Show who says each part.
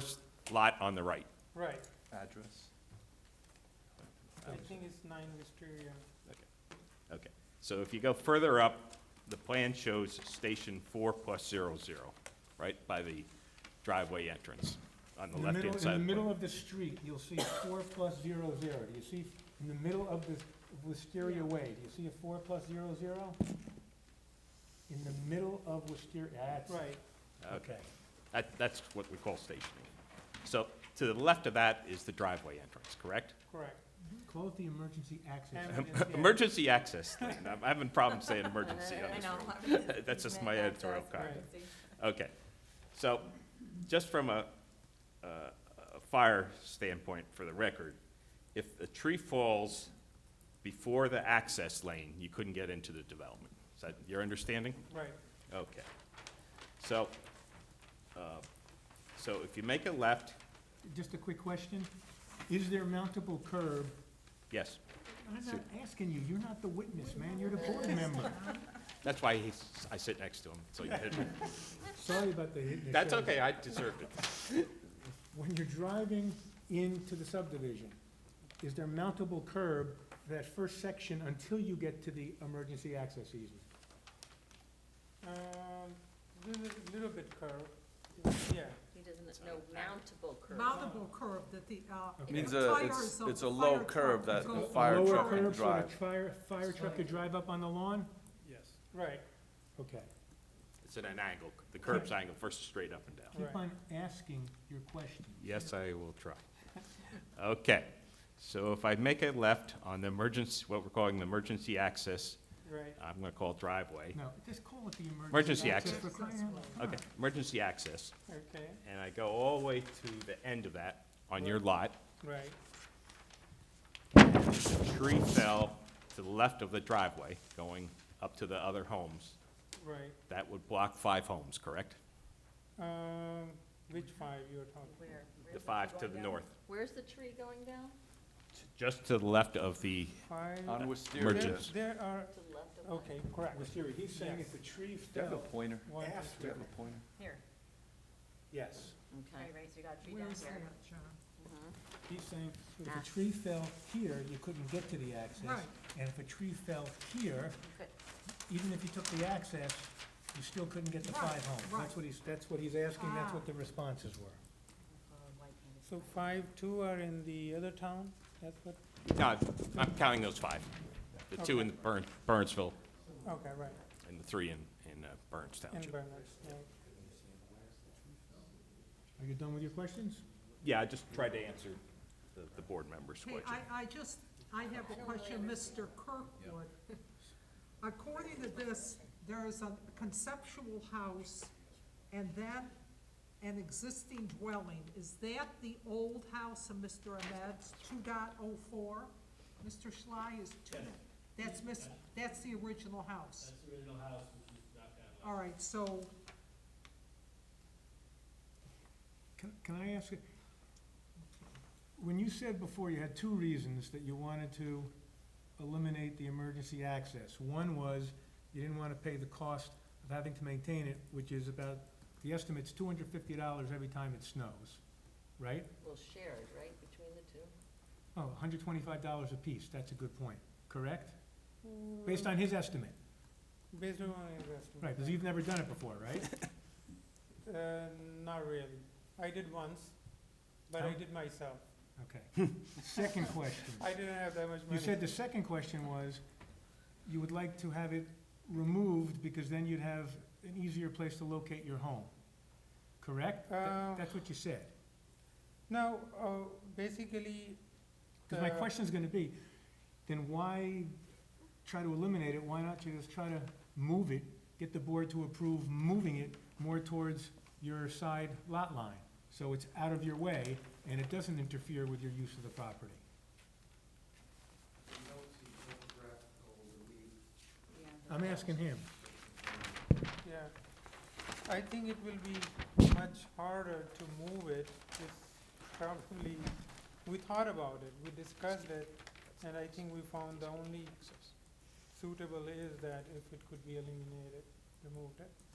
Speaker 1: first lot on the right.
Speaker 2: Right,
Speaker 3: address?
Speaker 2: I think it's nine Wisteria.
Speaker 1: Okay, so if you go further up, the plan shows station four plus zero zero, right by the driveway entrance on the
Speaker 4: In the middle,
Speaker 1: left-hand
Speaker 4: in
Speaker 1: side.
Speaker 4: the
Speaker 1: of the
Speaker 4: middle
Speaker 1: plan.
Speaker 4: of the street, you'll see four plus zero zero. Do you see, in the middle of the Wisteria Way, do you see a four plus zero zero? In the middle of Wisteria, that's.
Speaker 2: Right,
Speaker 1: Okay, Uh, that, that's what we call stationing. So to the left of that is the driveway entrance, correct?
Speaker 2: correct.
Speaker 4: Close the emergency access.
Speaker 2: And- Yes, yeah.
Speaker 1: Emergency access thing, I'm having problems saying emergency on this road.
Speaker 5: know.
Speaker 1: That's just my editorial comment.
Speaker 2: Right.
Speaker 1: Okay, so, just from a, a a fire standpoint for the record, if the tree falls before the access lane, you couldn't get into the development. Is that your understanding?
Speaker 2: Right,
Speaker 1: Okay. So, uh, so if you make a left,
Speaker 4: Just a quick question. Is there mountable curb?
Speaker 1: yes,
Speaker 4: I'm not asking you, you're not the witness, man, you're the board member.
Speaker 1: that's why he's, I sit next to him, so you hit me.
Speaker 4: Sorry about the hit and the
Speaker 1: That's
Speaker 4: shoulder.
Speaker 1: okay, I deserved it.
Speaker 4: When you're driving into the subdivision, is there mountable curb for that first section until you get to the emergency access easement?
Speaker 2: um, little, little bit curved, yeah,
Speaker 5: He doesn't know mountable curve.
Speaker 6: Mountable curb that the, uh.
Speaker 4: Okay.
Speaker 3: Means
Speaker 6: the
Speaker 3: a-
Speaker 6: tires
Speaker 3: it's-
Speaker 6: of
Speaker 3: it's
Speaker 6: the
Speaker 3: a low
Speaker 6: fire
Speaker 3: curb
Speaker 6: truck
Speaker 3: that
Speaker 6: go
Speaker 3: the fire
Speaker 6: over.
Speaker 3: truck can
Speaker 4: Lower curb so the
Speaker 3: drive.
Speaker 4: fire, fire truck could drive up on the lawn?
Speaker 3: Yes.
Speaker 2: right,
Speaker 4: Okay.
Speaker 1: It's at an angle, the curb's angle versus straight up and down.
Speaker 4: Keep
Speaker 2: Right.
Speaker 4: on asking your question.
Speaker 1: Yes, I will try. Okay, so if I make a left on the emergency, what we're calling the emergency access,
Speaker 2: right.
Speaker 1: I'm gonna call it driveway.
Speaker 4: No, just call it the
Speaker 1: Emergency
Speaker 4: emergency access.
Speaker 1: access.
Speaker 4: for crying out loud.
Speaker 1: Okay, emergency access,
Speaker 2: Okay,
Speaker 1: and I go all the way to the end of that on your lot.
Speaker 2: right,
Speaker 1: The Tree fell to the left of the driveway, going up to the other homes.
Speaker 2: right.
Speaker 1: That would block five homes, correct?
Speaker 2: Um, which five you're talking?
Speaker 5: Where- where's
Speaker 1: The five to
Speaker 5: going
Speaker 1: the
Speaker 5: down?
Speaker 1: north,
Speaker 5: Where's the tree going down?
Speaker 1: just to the left of the,
Speaker 2: Five,
Speaker 3: On
Speaker 2: there,
Speaker 3: Wisteria.
Speaker 1: Merchants.
Speaker 2: there are,
Speaker 5: To the left of
Speaker 2: okay, correct.
Speaker 4: Wisteria, he's saying if the tree
Speaker 3: Do you have a
Speaker 4: fell
Speaker 3: pointer?
Speaker 2: One,
Speaker 4: after,
Speaker 3: Do you have a pointer?
Speaker 5: Here,
Speaker 4: yes,
Speaker 5: okay, right, so you got a tree down
Speaker 6: Where's
Speaker 5: here. Mm-hmm.
Speaker 6: that, John?
Speaker 4: he's saying if a tree fell here, you couldn't get to the access.
Speaker 6: Right.
Speaker 4: And if a tree fell here,
Speaker 5: Good.
Speaker 4: even if you took the access, you still couldn't get the
Speaker 6: Right,
Speaker 4: five homes.
Speaker 6: right.
Speaker 4: That's what he's, that's what he's asking, that's
Speaker 6: Ah.
Speaker 4: what the responses were.
Speaker 2: So five, two are in the other town, that's what,
Speaker 1: no, I'm counting those five. The two in Burn- Burnsville
Speaker 2: okay, right,
Speaker 1: and the three in, in uh, Burns Township.
Speaker 2: in Berners, right.
Speaker 4: Are you done with your questions?
Speaker 1: Yeah, I just tried to answer the, the board member's
Speaker 6: Hey,
Speaker 1: question.
Speaker 6: I, I just, I have a question, Mr. Kirkwood. According to this, there is a conceptual house and then an existing dwelling. Is that the old house of Mr. Ahmed's two dot oh four? Mr. Schley is two, that's Miss, that's the original house.
Speaker 7: That's the original house, which was knocked down.
Speaker 6: All right, so
Speaker 4: Can, can I ask you, when you said before you had two reasons that you wanted to eliminate the emergency access. One was you didn't want to pay the cost of having to maintain it, which is about, the estimate's two hundred fifty dollars every time it snows, right?
Speaker 5: Well, shared, right, between the two?
Speaker 4: Oh, hundred twenty-five dollars apiece, that's a good point, correct? Based on his estimate,
Speaker 2: Based on investment.
Speaker 4: right, because you've never done it before, right?
Speaker 2: Uh, not really. I did once, but I
Speaker 4: Huh?
Speaker 2: did myself.
Speaker 4: Okay. Second question.
Speaker 2: I didn't have that much money.
Speaker 4: You said the second question was, you would like to have it removed because then you'd have an easier place to locate your home, correct? That-
Speaker 2: Uh,
Speaker 4: That's what you said.
Speaker 2: No, uh, basically.
Speaker 4: Because my
Speaker 2: the-
Speaker 4: question's gonna be, then why try to eliminate it? Why not you just try to move it, get the board to approve moving it more towards your side lot line? So it's out of your way and it doesn't interfere with your use of the property. I'm asking him.
Speaker 2: Yeah. I think it will be much harder to move it. It's probably, we thought about it, we discussed it, and I think we found the only suitable is that if it could be eliminated, removed it.